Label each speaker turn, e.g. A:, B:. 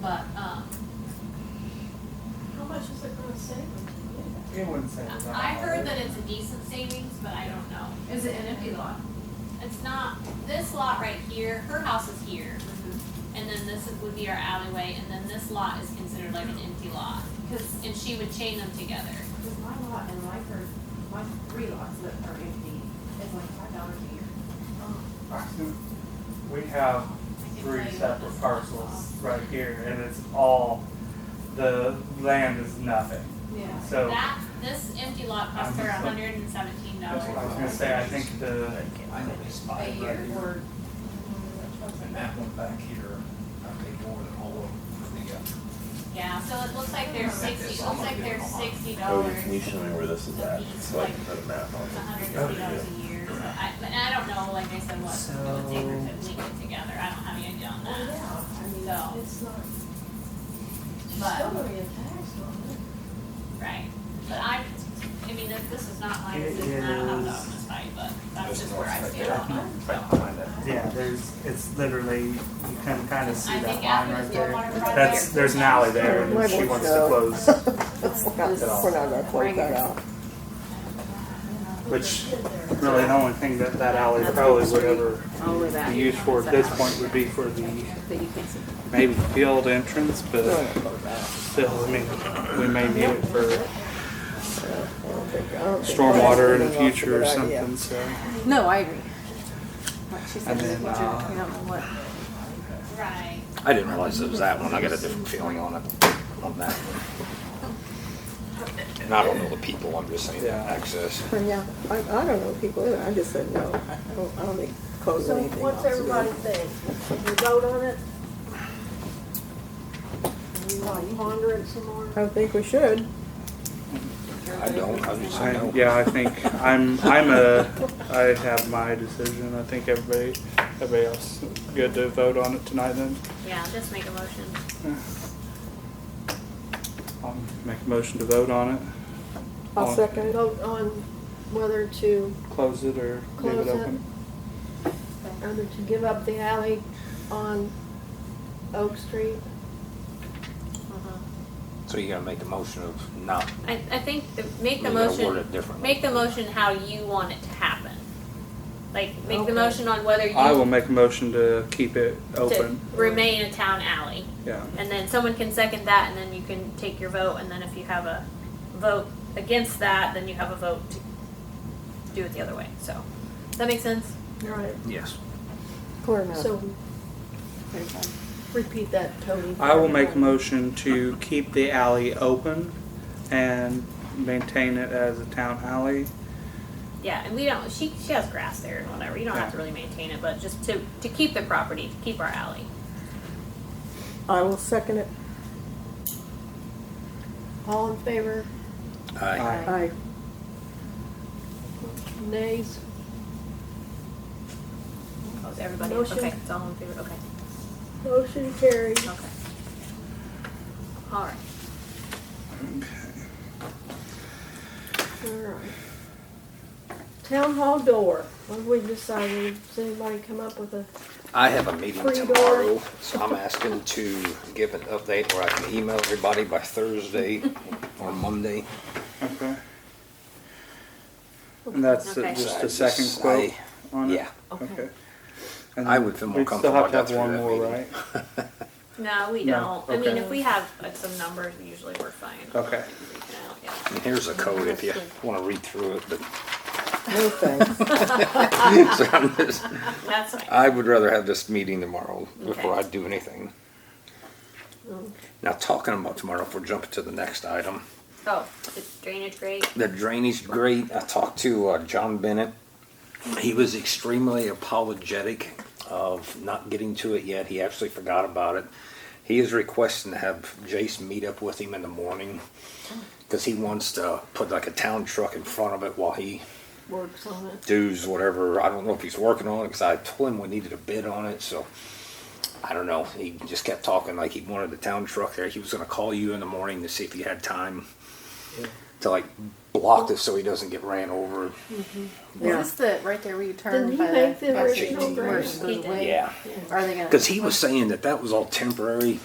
A: but, um,
B: How much is it gonna save them to do that?
C: It wouldn't say. it was on
A: I heard
C: there.
A: that it's a decent savings, but I don't know.
D: Is it an empty lot?
A: It's not, this lot right here, her house is here,
C: Mm-hmm.
A: and then this would be our alleyway, and then this lot is considered like an empty lot.
D: Because,
A: And she would chain them together.
D: because my lot and my first, my three lots that are empty is like five dollars a year.
C: We have three separate parcels right here, and it's all, the land is nothing,
D: Yeah.
C: so.
A: That, this empty lot cost her hundred and seventeen
C: That's what I was
A: dollars.
C: gonna say, I think the,
E: I know these
D: A
E: five right
D: year
E: here,
D: or.
E: and that one back here, I paid more than all of them for the, uh,
A: Yeah, so it looks like there's sixty, it looks like there's sixty
F: Cody,
A: dollars,
F: can you show me where this is at, so I can put a map on
A: a hundred and fifty dollars
F: it?
A: a year, so I, but I don't know, like I said, what it would take her to link it together, I don't have any idea on
B: Well,
A: that.
B: yeah,
A: So.
B: I mean, it's not, she's
A: But-
B: still gonna get taxed on
A: Right, but I, I mean, if this is not my
C: It
A: decision, I don't have to
C: is-
A: own this fight, but that's
E: This
A: just
E: one
A: where I
E: right
A: stand
E: there.
A: on it, so.
E: right behind that.
C: yeah, there's, it's literally, you can kind of see
A: I
C: that
A: think
C: line
A: after
C: right
A: the stormwater
C: there.
A: project.
C: That's, there's an alley there, and she wants to close,
G: Let's not,
C: It all.
G: we're not gonna close that out.
B: it.
C: Which-
B: Put the kid there.
C: really the only thing that that alley probably would ever be used for at this point would be for the, maybe field entrance, but
G: We're not gonna close that out.
C: still, I mean, we may need it for
G: I don't think- I don't think
C: stormwater in the
G: closing off is a
C: future or
G: good idea.
C: something, so.
H: No, I agree. Like she said,
C: And
H: in the
C: then,
H: future,
C: uh,
H: you don't know what.
A: Right,
E: I didn't realize it was that one, I got a different feeling on it, on that one. And I don't know the people, I'm just saying
C: Yeah.
E: access.
G: But Yeah, I, I don't know people either, I just said no, I don't, I don't think close
B: So
G: anything off. is
B: what's
G: good.
B: everybody think? You vote on it? You want to ponder it some more?
G: I think we should.
E: I don't, I just
C: I,
E: don't.
C: yeah, I think I'm I'm a I have my decision. I think everybody everybody else good to vote on it tonight then.
A: yeah, just make a motion.
C: I'll make a motion to vote on it.
G: I'll second it.
B: Vote on whether to,
C: Close it or leave
B: Close
C: it
B: it.
C: open.
B: whether to give up the alley on Oak Street.
E: So you gotta make the motion of not,
A: Mm-hmm. I, I think, the- make
E: you
A: the
E: gotta word
A: motion,
E: it differently.
A: make the motion how you want it to happen. Like, make
B: Okay.
A: the motion on whether
C: I will
A: you,
C: make a motion to keep it
A: to
C: open.
A: remain a town alley.
C: Yeah.
A: And then someone can second that, and then you can take your vote, and then if you have a vote against that, then you have a vote to do it the other way, so. Does that make sense?
B: Right.
E: Yes.
G: Clear enough.
B: So repeat that, Tony.
C: I will make a motion to keep the alley open and maintain it as a town alley.
A: Yeah, and we don't, she, she has grass there and whatever, you don't have to really maintain it, but just to, to keep the property, to keep our alley.
G: I will second it,
B: All in favor?
E: Aye.
G: I,
B: Nays?
A: Close everybody,
B: Motion.
A: okay, it's all in favor, okay,
B: Motion carried.
A: okay. All right,
B: All right. Town hall door, what have we decided? Does anybody come up with a,
E: I have a meeting
B: Free door.
E: tomorrow, so I'm asking to give an update where I can email everybody by Thursday or Monday.
C: Okay. And that's
A: Okay.
C: just
E: So I
C: a second
E: just-
C: quote
E: I-
C: on it.
E: Yeah,
C: Okay.
E: I would feel more
C: We'd still have to have
E: comfortable
C: one
E: if I got
C: more,
E: through that
C: right?
A: no, we
C: No,
A: don't, I mean,
C: okay. Oh.
A: if we have like, some numbers, usually we're fine.
C: Okay.
A: We can out, yeah.
E: and here's a code if you wanna read through it, but,
G: no thanks.
E: so I'm just,
A: That's fine,
E: I would rather have this meeting tomorrow before I
A: Okay.
E: do anything. Now, talking about tomorrow, if we're jumping to the next item,
A: oh, the drainage grate,
E: the drainage grate, I talked to uh, John Bennett. He was extremely apologetic of not getting to it yet. He actually forgot about it. He is requesting to have Jace meet up with him in the morning because he wants to put like a town truck in front of it while he
B: works on it?
E: dues, whatever. I don't know if he's working on it because I told him we needed a bid on it. So I don't know. He just kept talking like he wanted the town truck there. He was going to call you in the morning to see if you had time to like block this so he doesn't get ran over.
G: Yeah.
H: Is this the right there where you turn
B: Did he
H: by
B: make the
E: That's
B: original
E: it.
B: grade?
H: Where it goes
A: He did.
H: away?
E: Yeah.
H: Are they gonna?
E: Because he was saying that that was all temporary